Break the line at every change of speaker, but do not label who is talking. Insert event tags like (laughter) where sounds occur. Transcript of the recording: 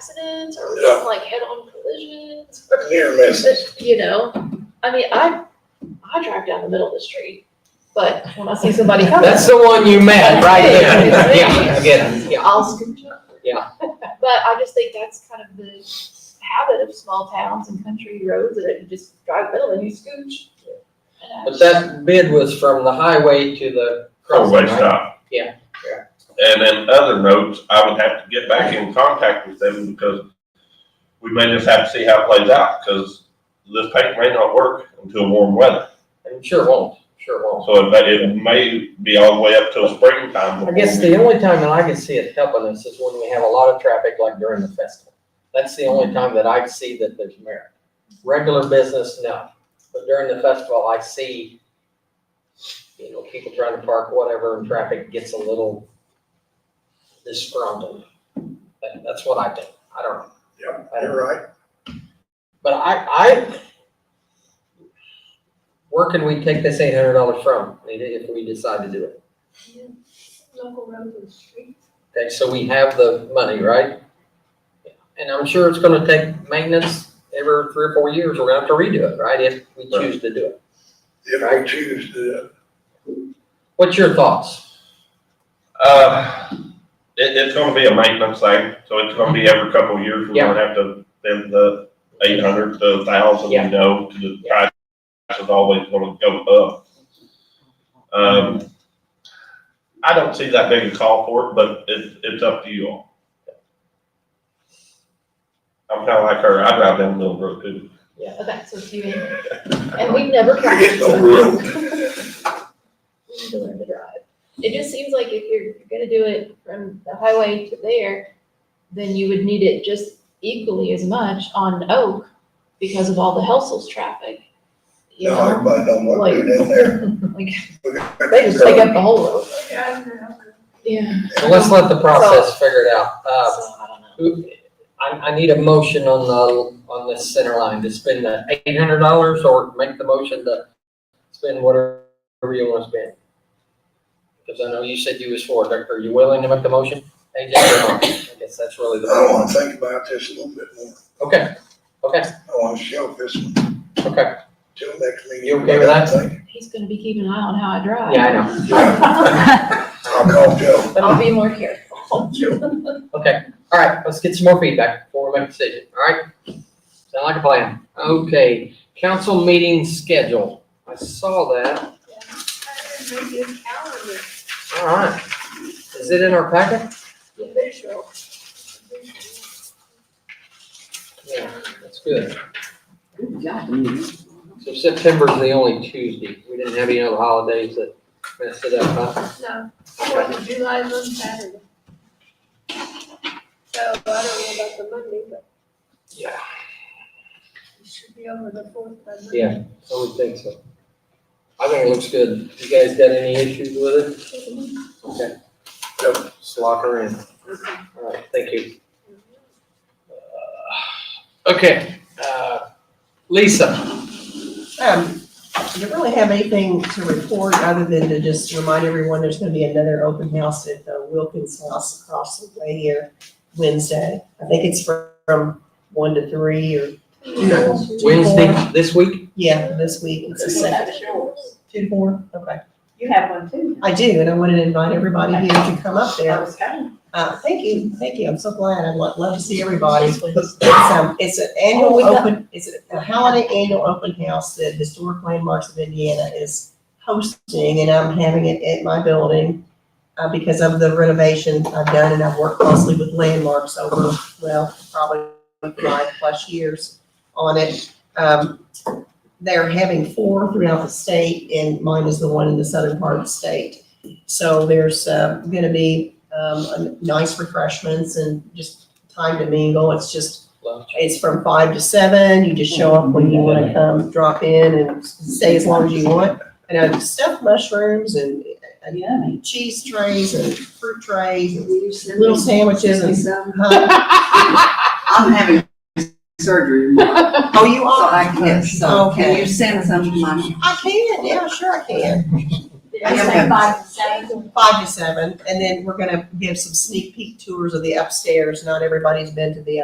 accidents or
Yeah.
like head-on collisions.
Near misses.
You know, I mean, I, I drive down the middle of the street, but when I see
(laughs)
somebody coming,
That's the one you met right there. Yeah, I get it. Yeah.
I'll scooch up.
Yeah.
(laughs) But I just think that's kind of the habit of small towns and country roads that you just drive middle and you scooch. And I
But
just-
that bid was from the highway to the crossing,
Four-way
right?
stop.
Yeah, yeah.
And then other notes, I would have to get back in contact with them because we may just have to see how it plays out because this paint may not work until warm weather.
And sure won't, sure won't.
So it may, it may be all the way up till springtime.
I guess the only time that I can see it helping us is when we have a lot of traffic like during the festival. That's the only time that I see that there's merit. Regular business, no. But during the festival, I see, you know, people trying to park whatever and traffic gets a little disgruntled. That, that's what I think. I don't know.
Yeah, you're right.
But I, I, where can we take this eight hundred dollars from, if we decide to do it?
Local roads and streets.
Okay, so we have the money, right? And I'm sure it's gonna take maintenance every three or four years, we're gonna have to redo it, right, if we choose to do it.
If we choose to, uh,
What's your thoughts?
Uh, it, it's gonna be a maintenance thing, so it's gonna be every couple of years, we're gonna have to, then the eight hundred, the thousand,
Yeah.
you know, to the price is always gonna go up. Um, I don't see that big a call for it, but it's, it's up to you all. I'm kinda like her, I drive down Mill Brook too.
Okay, so it's you and, and we've never tried.
It's a
(laughs) We need to learn to drive. It just seems like if you're gonna do it from the highway to there, then you would need it just equally as much on Oak because of all the Helsel's traffic. You
no,
know,
everybody don't want to do that there.
(laughs) like, they just take up the whole road. Yeah,
So let's let the process figure it out.
so
Uh,
I don't know.
who- I, I need a motion on the, on this center line to spend the eight hundred dollars or make the motion to spend whatever you wanna spend. Cause I know you said you was for it, are you willing to make the motion? AJ, or not? I guess that's really
I
the. motion.
want to think about this a little bit more.
Okay, okay,
I want to shelve this one
okay.
till next meeting.
You okay with that?
He's gonna be keeping an eye on how I drive.
Yeah, I know.
I'll call Joe.
(laughs) I'll be more careful.
Okay, all right, let's get some more feedback before we make a decision, all right? Sound like a plan. Okay, council meeting schedule. I saw that. All right. Is it in our packet? Yeah, that's good. So September's the only Tuesday. We didn't have any other holidays that messed it up, huh?
No, Fourth of July is on Saturday. So I don't know about the Monday, but
Yeah.
it should be over the fourth by Monday.
Yeah, I would think so. I think it looks good. You guys got any issues with it? Okay. Yep, just lock her in. All right, thank you. Okay, uh, Lisa,
Um, I don't really have anything to report other than to just remind everyone there's gonna be another open house at the Wilkins House across the way here Wednesday. I think it's fr- from one to three or,
Wednesday this week?
yeah, this week. It's a Saturday. Two to four, okay.
You have one too.
I do, and I wanted to invite everybody here to come up
I
there.
was coming.
Uh, thank you, thank you. I'm so glad. I'd lo- love to see everybody. It's, um, it's an annual open, it's a holiday annual open house that Historic Landmarks of Indiana is hosting, and I'm having it at my building, uh, because of the renovation I've done, and I've worked closely with Landmarks over, well, probably five plus years on it. Um, they're having four throughout the state, and mine is the one in the southern part of the state. So there's, uh, gonna be, um, a- nice refreshments and just time to mingle. It's just
Lunch.
it's from five to seven, you just show up when you wanna come, drop in and stay as long as you want. And I have stuffed mushrooms and uh,
Yummy.
cheese trays and fruit trays and
Will you send me-
little sandwiches
send me
and.
some?
Huh? (laughs)
I'm having surgery tomorrow,
(laughs)
Oh, you
so
are?
I can't, so can
Okay.
you send some to my?
I can, yeah, sure I can.
I
Yes,
am-
five to seven.
Five to seven, and then we're gonna give some sneak peek tours of the upstairs. Not everybody's been to the